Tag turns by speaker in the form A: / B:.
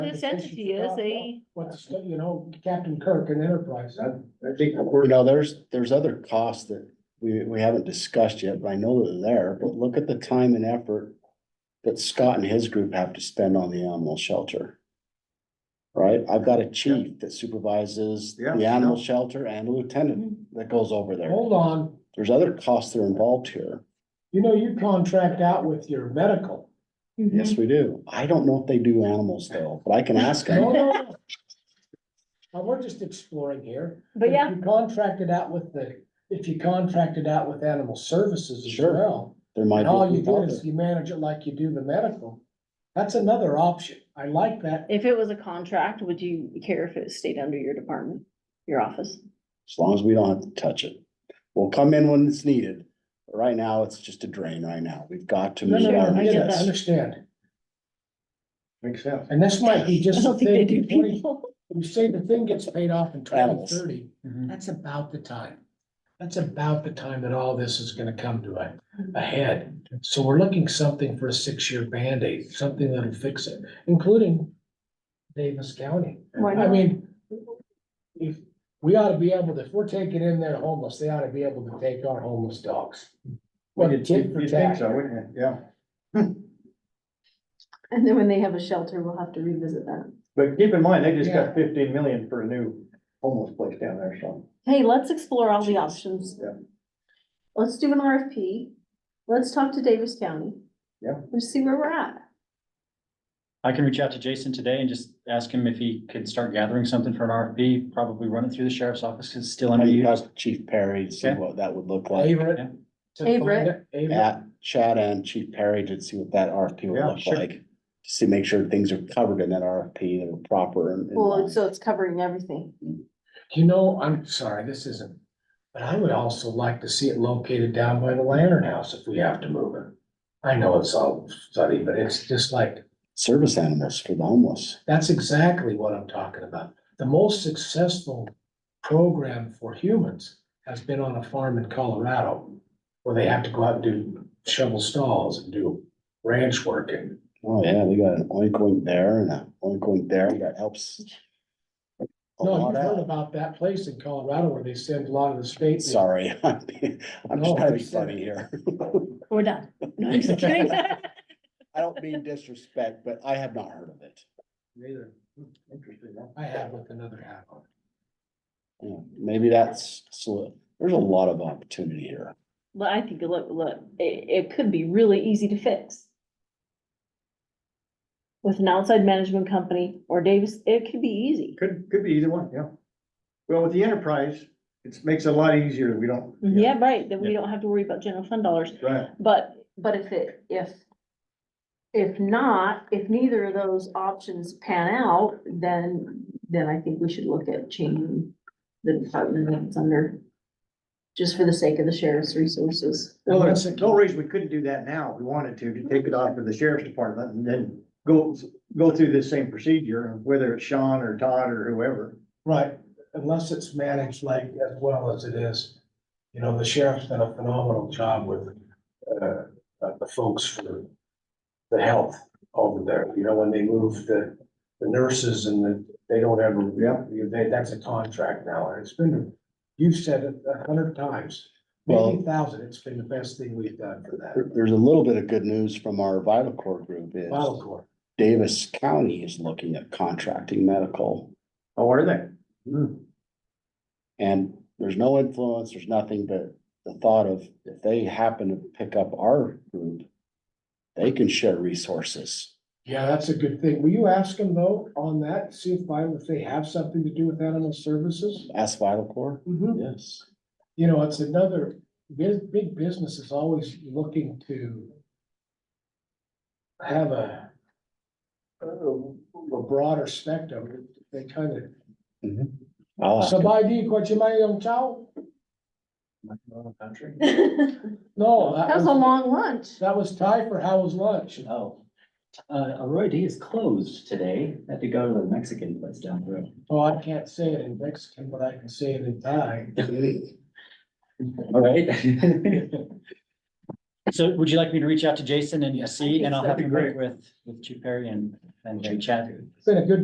A: this entity is, they,
B: What's, you know, Captain Kirk and Enterprise,
C: I I think, you know, there's, there's other costs that we, we haven't discussed yet, but I know that they're there, but look at the time and effort that Scott and his group have to spend on the animal shelter. Right? I've got a chief that supervises
D: Yeah,
C: the
D: yeah.
C: animal shelter and a lieutenant that goes over there.
B: hold on,
C: There's other costs that are involved here.
B: you know, you contract out with your medical.
D: Mm-hmm.
C: Yes, we do. I don't know if they do animals though, but I can ask
B: No,
C: them.
B: no, no. Now, we're just exploring here.
A: but yeah,
B: If you contract it out with the, if you contract it out with animal services as
C: Sure.
B: well,
C: There might
B: and all
C: be.
B: you
C: people
B: do
C: out
B: is
C: there.
B: you manage it like you do the medical. That's another option. I like that.
A: if it was a contract, would you care if it stayed under your department, your office?
C: As long as we don't have to touch it. We'll come in when it's needed. But Right now, it's just a drain right now. We've got to
B: No,
C: meet
B: no,
C: our
B: no, I get that, I
C: needs.
B: understand.
D: Makes sense.
B: And this might be
A: I
B: just a
A: don't think they
B: thing,
A: do
B: twenty,
A: people.
B: you say the thing gets paid off in twenty
C: Animals.
B: thirty,
D: Mhm.
B: that's about the time. That's about the time that all this is gonna come to a, a head. So we're looking something for a six-year Band-Aid, something that'll fix it, including Davis County.
A: Why
B: I
A: not?
B: mean, if, we ought to be able to, if we're taking in their homeless, they ought to be able to take our homeless dogs. What a
D: You'd-
B: tit for
D: you'd think
B: tat.
D: so, wouldn't you? Yeah,
E: And then when they have a shelter, we'll have to revisit that.
D: but keep in mind, they just
B: Yeah.
D: got fifteen million for a new homeless place down there, so.
E: Hey, let's explore all the options.
D: Yeah.
E: Let's do an RFP. Let's talk to Davis County.
D: Yeah.
E: Let's see where we're at.
F: I can reach out to Jason today and just ask him if he could start gathering something for an RFP, probably run it through the sheriff's office, because it's still
C: I mean, you
F: underused.
C: ask Chief Perry to see
F: Okay.
C: what that would look like.
B: Favorite.
F: Yeah.
B: to find
E: Favorite.
B: it, favorite.
C: At Chad and Chief Perry to see what that RFP would
D: Yeah,
C: look
F: sure.
C: like. To see, make sure things are covered in that RFP, that are proper and. uh, and-
E: Well, and so it's covering everything.
B: You know, I'm sorry, this isn't, but I would also like to see it located down by the Lantern House if we have to move it. I know it's all study, but it's just like,
C: Service animals for the homeless.
B: that's exactly what I'm talking about. The most successful program for humans has been on a farm in Colorado where they have to go out and do shovel stalls and do ranch work and
C: Oh, yeah, we got an oink oink there and a oink oink there. That helps. a
B: no,
C: lot
B: you've heard
C: out.
B: about that place in Colorado where they send a lot of the state.
C: Sorry, I'm being- I'm just
B: No,
C: trying to be
B: it's-
C: funny here.
A: We're done. No, I'm just kidding.
C: I don't mean disrespect, but I have not heard of it.
D: Neither. Hmm, Interesting, huh?
B: I have with another hat on.
C: Yeah, Maybe that's, so, there's a lot of opportunity here.
A: But I think, look, look, it, it could be really easy to fix. With an outside management company or Davis, it could be easy.
D: Could, could be either one, yeah. Well, with the enterprise, it makes it a lot easier, we don't.
E: Mm-hmm.
A: Yeah, right, then we don't have to worry about general fund dollars,
D: Right,
A: but
E: But if it, if, if not, if neither of those options pan out, then, then I think we should look at changing the department that it's under. Just for the sake of the sheriff's resources.
D: well, there's no reason we couldn't do that now, if we wanted to, to take it off of the sheriff's department and then go, go through this same procedure, whether it's Sean or Todd or whoever.
B: Right, unless it's managed like as well as it is. You know, the sheriff's done a phenomenal job with, uh, uh, the folks for the health over there. You know, when they move the, the nurses and the, they don't ever,
D: Yeah.
B: you- they, that's a contract now. And it's been, you've said it a hundred times, maybe
C: Well-
B: a thousand. It's been the best thing we've done for that.
C: There- there's a little bit of good news from our Vital Core group is
B: Vital Corps.
C: Davis County is looking at contracting medical.
D: Oh, are they? Hmm.
C: And there's no influence, there's nothing but the thought of if they happen to pick up our group, they can share resources.
B: Yeah, that's a good thing. Will you ask them though on that, see if, I- if they have something to do with animal services?
C: Ask Vital Core,
B: Mm-hmm.
C: yes.
B: you know, it's another, big, big business is always looking to have a a a broader spectrum, they kind of,
C: I'll ask,
B: somebody di qualche mai un ciao?
D: Country.
E: That
B: No, that
E: was a
B: was,
E: long lunch.
B: that was Thai for how was lunch?
G: Oh, uh, Arroyo D is closed today. Had to go to the Mexican place down the road.
B: Oh, I can't say it in Mexican, but I can say it in Thai.
G: All right.
F: So would you like me to reach out to Jason and uh, see, and I'll have
E: That'd
F: you
E: be
F: work with, with Chief Perry and, and Jay Chad?
H: It's been a good